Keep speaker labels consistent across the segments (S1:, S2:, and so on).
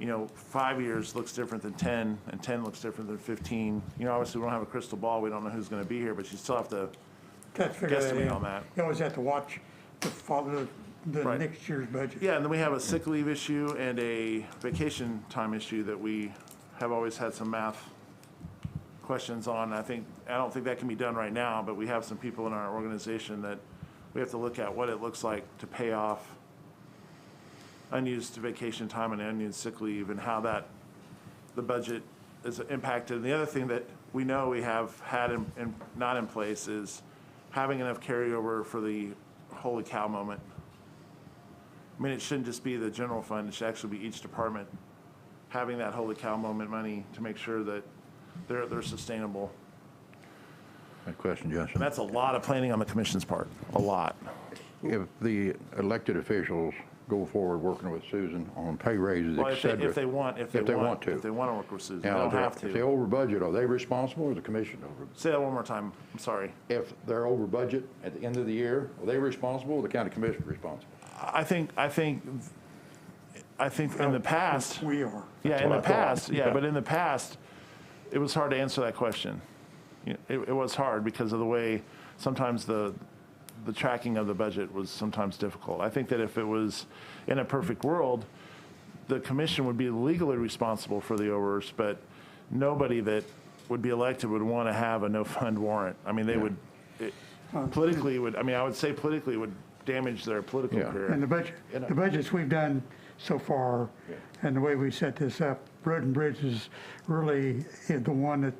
S1: you know, five years looks different than 10, and 10 looks different than 15. You know, obviously, we don't have a crystal ball, we don't know who's gonna be here, but you still have to,
S2: Got to figure that
S1: Guesstimate
S2: out.
S1: on that.
S2: You always have to watch the follow the
S1: Right.
S2: next year's budget.
S1: yeah, and then we have a sick leave issue and a vacation time issue that we have always had some math questions on. I think, I don't think that can be done right now, but we have some people in our organization that we have to look at what it looks like to pay off unused vacation time and unused sick leave and how that, the budget is impacted. And the other thing that we know we have had and, and not in place is having enough carryover for the holy cow moment. I mean, it shouldn't just be the general fund, it should actually be each department having that holy cow moment money to make sure that they're, they're sustainable.
S3: Good question,
S1: And
S3: Justin.
S1: that's a lot of planning on the commission's part, a lot.
S3: If the elected officials go forward working with Susan on pay raises,
S1: Well,
S3: et
S1: if they,
S3: cetera.
S1: if they want, if they want. If they
S3: to.
S1: want to work with Susan, they
S3: Now,
S1: don't
S3: if they're-
S1: have
S3: If
S1: to.
S3: they over budget, are they responsible or is the commission over?
S1: Say that one more time, I'm sorry.
S3: If they're over budget at the end of the year, are they responsible or the county commission responsible?
S1: I think, I think, I think in the past,
S2: We are.
S1: yeah, in
S3: what
S1: the
S3: I thought.
S1: past, yeah,
S3: Yeah.
S1: but in the past, it was hard to answer that question. You know, It, it was hard because of the way sometimes the, the tracking of the budget was sometimes difficult. I think that if it was in a perfect world, the commission would be legally responsible for the overs, but nobody that would be elected would want to have a no-fund warrant. I mean, they would, it- politically would, I mean, I would say politically would damage their political
S3: Yeah.
S1: career.
S2: And the budget,
S1: And I-
S2: the budgets we've done so far, and the way we set this up, Road and Bridge is really the one that,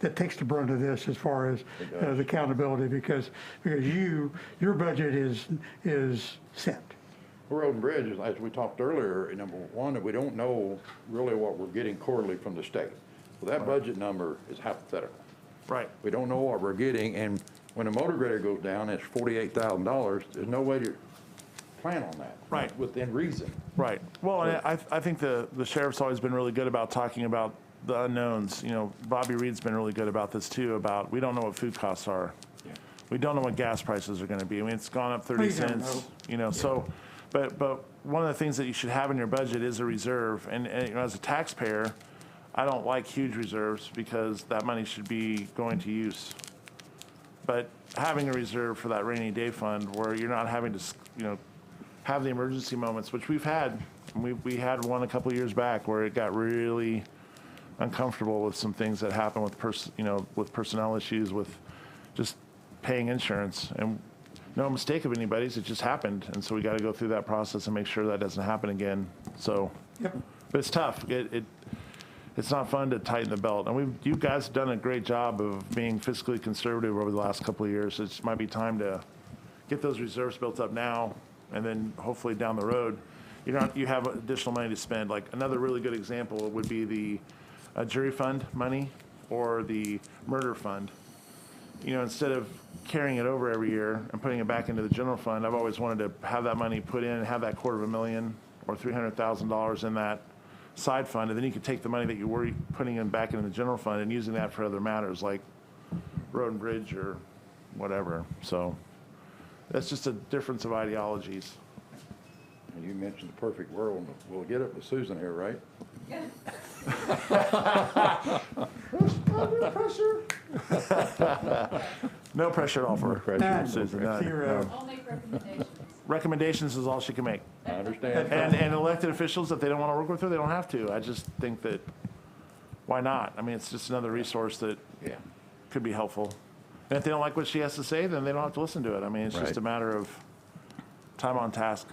S2: that takes the brunt of this as far as uh, the accountability, because, because you, your budget is, is set.
S3: Road and bridges, as we talked earlier, number one, that we don't know really what we're getting quarterly from the state. Well, that budget number is hypothetical.
S1: Right.
S3: We don't know what we're getting, and when a motor grader goes down, it's forty-eight thousand dollars, there's no way to plan on that.
S1: Right.
S3: Within reason.
S1: Right. Well, and I, I think the, the sheriff's always been really good about talking about the unknowns. You know, Bobby Reed's been really good about this too, about we don't know what food costs are. We don't know what gas prices are gonna be. I mean, it's gone up thirty
S2: We don't know.
S1: cents, you know, so, but, but one of the things that you should have in your budget is a reserve. And, and you know, as a taxpayer, I don't like huge reserves because that money should be going to use. But having a reserve for that rainy day fund where you're not having to, s- you know, have the emergency moments, which we've had. We, we had one a couple years back where it got really uncomfortable with some things that happened with pers- you know, with personnel issues, with just paying insurance. And no mistake of anybody's, it just happened. And so we got to go through that process and make sure that doesn't happen again. So,
S2: Yep.
S1: but it's tough. It, it, it's not fun to tighten the belt. And we've, you guys have done a great job of being fiscally conservative over the last couple of years. It might be time to get those reserves built up now, and then hopefully down the road, you know, you have additional money to spend. Like, another really good example would be the uh, jury fund money or the murder fund. You know, instead of carrying it over every year and putting it back into the general fund, I've always wanted to have that money put in, have that quarter of a million or three hundred thousand dollars in that side fund, and then you could take the money that you were putting in back into the general fund and using that for other matters like road and bridge or whatever, so. That's just a difference of ideologies.
S3: And you mentioned the perfect world, and we'll get it with Susan here, right?
S1: No pressure at all for
S3: pressure.
S1: Susan. none.
S2: Zero.
S4: I'll make recommendations.
S1: Recommendations is all she can make.
S3: I understand.
S1: And, and elected officials, if they don't want to work with her, they don't have to. I just think that, why not? I mean, it's just another resource that
S3: Yeah.
S1: could be helpful. And if they don't like what she has to say, then they don't have to listen to it. I mean, it's just
S3: Right.
S1: a matter of time on task.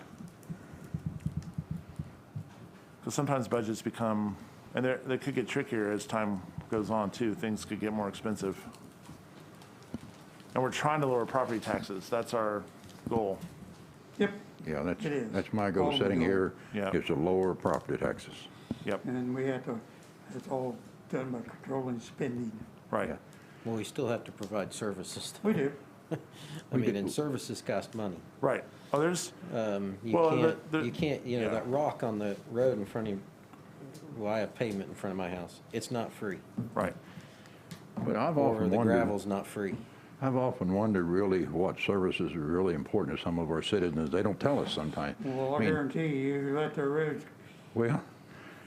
S1: Because sometimes budgets become, and they're, they could get trickier as time goes on too. Things could get more expensive. And we're trying to lower property taxes. That's our goal.
S2: Yep.
S3: Yeah, that's,
S2: It is.
S3: that's my goal
S2: All
S3: setting
S2: we know.
S3: here,
S1: Yeah.
S3: is to lower property taxes.
S1: Yep,
S2: And then we had to, it's all done by controlling spending.
S1: right.
S5: Well, we still have to provide services.
S2: We do.
S5: I mean,
S3: did-
S5: and services cost money.
S1: Right. Oh, there's,
S5: Um, You
S1: Well, the-
S5: can't,
S1: the-
S5: you can't, you
S1: yeah.
S5: know, that rock on the road in front of, well, I have pavement in front of my house. It's not free.
S1: right.
S3: But I've
S5: Or
S3: often
S5: the
S3: wondered,
S5: gravel's not free.
S3: I've often wondered really what services are really important to some of our citizens. They don't tell us sometimes.
S2: Well, I
S3: mean,
S2: guarantee you, you let the roads
S3: Well,